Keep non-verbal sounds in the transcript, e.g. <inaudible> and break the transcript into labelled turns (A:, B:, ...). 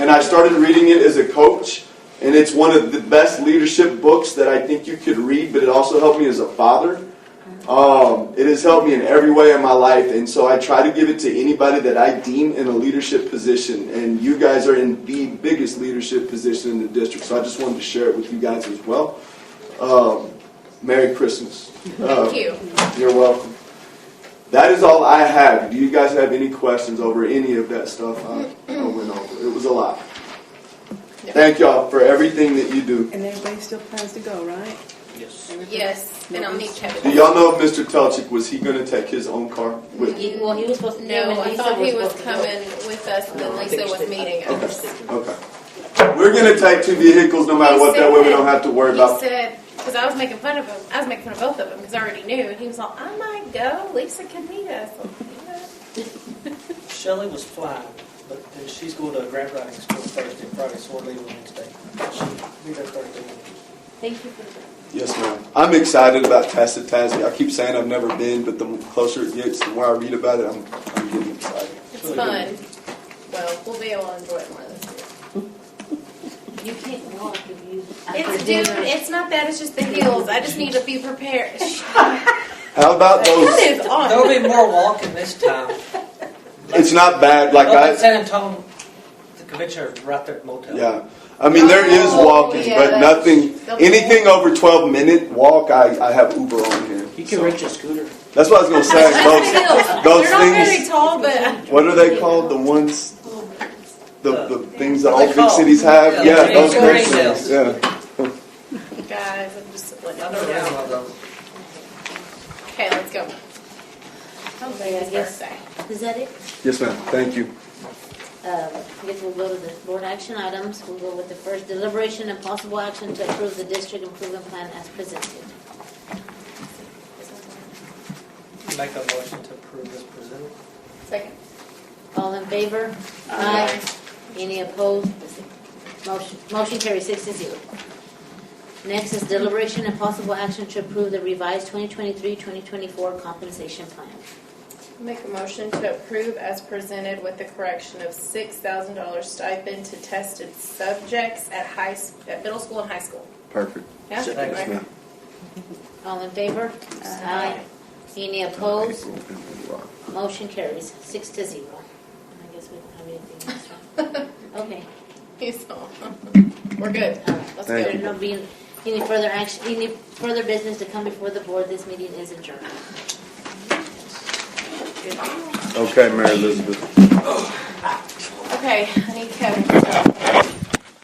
A: I started reading it as a coach, and it's one of the best leadership books that I think you could read, but it also helped me as a father. Um, it has helped me in every way in my life, and so I try to give it to anybody that I deem in a leadership position. And you guys are in the biggest leadership position in the district, so I just wanted to share it with you guys as well. Um, Merry Christmas. Uh,
B: Thank you.
A: You're welcome. That is all I have. Do you guys have any questions over any of that stuff I, I went over? It was a lot. Thank y'all for everything that you do.
C: And everybody still plans to go, right?
D: Yes.
C: Everybody-
B: Yes, and I'll meet
A: Do
B: Kevin.
A: y'all know if Mr. Telchik was he going to take his own car with? him?
E: He- Well, he was supposed to. him
B: No,
E: and
B: I
E: Lisa
B: thought he
E: were
B: was
E: supposed to go.
B: coming with us, and then
D: I
B: Lisa
D: think she
B: was
D: did.
B: meeting
D: Okay.
B: us.
A: Okay. We're going to take two vehicles no matter
B: He
A: what. That way we
B: said-
A: don't have to worry
B: He
A: about.
B: said, because I was making fun of him, I was making fun of both of them, because I already knew, and he was like, I might go, Lisa can meet us. I'm like, "Yeah."
D: Shelley was flying, but then she's going to a grant writing school Thursday, and Friday, so we're leaving Wednesday. She'll be there Thursday.
E: Thank you for that.
A: Yes, ma'am. I'm excited about Tacit Tassie. I keep saying I've never been, but the closer it gets, the more I read about it, I'm, I'm getting excited.
B: It's
D: Really
B: fun. Well, we'll be able to enjoy it more this year.
E: You can't walk if you.
B: It's, dude, it's not that, it's just the heels, I just need to be prepared.
A: How about
B: What
A: those?
B: is on?
D: There'll be more walking this time.
A: It's not bad.
B: Oh,
A: Like
D: Up
A: I.
D: in San Antonio, the convention is right there at motel.
A: Yeah, I mean there is
B: Oh,
A: walking,
B: yeah,
A: but
B: that's-
A: nothing,
B: that's-
A: anything over twelve minute walk, I, I have Uber on here.
D: You
A: So,
D: can rent your scooter.
A: That's what I was gonna
B: <laughs>
A: say.
B: Those,
A: those
B: They're not very
A: things-
B: tall, but.
A: Those, what are they called? The ones, the, the things that all
D: They're
A: big cities
D: called-
A: have.
D: yeah,
A: Yeah, those
D: they're
A: kinds of things.
D: called
A: Yeah.
B: Guys, I'm just letting
D: I
B: you
D: never ran
B: know.
D: one of those.
B: Okay, let's go.
E: Okay, I guess,
B: Birthday.
E: is that it?
A: Yes, ma'am. Thank you.
E: Um, I guess we'll go to the board action items. We'll go with the first deliberation and possible action to approve the district improvement plan as presented.
D: Make a motion to approve as presented.
B: Second.
E: All in favor? Aye. Any opposed? Motion, motion carries six to zero. Next is deliberation and possible action to approve the revised 2023-2024 compensation plan.
B: Make a motion to approve as presented with the correction of six thousand dollars stipend to tested subjects at high, s- at middle school and high school. <laughs>
A: Perfect.
B: Yeah?
D: Second.
A: Yes,
B: Okay.
A: ma'am.
E: All in favor? Aye. Any opposed? Motion carries six to zero. I guess we don't have anything else, right? Okay.
B: He's all- We're good.
E: all right.
A: Thank
B: Let's go.
E: There will not be any further action, any further business to come before the board. This meeting is adjourned.
A: Okay, Mary Elizabeth.
B: Okay, I need Kevin.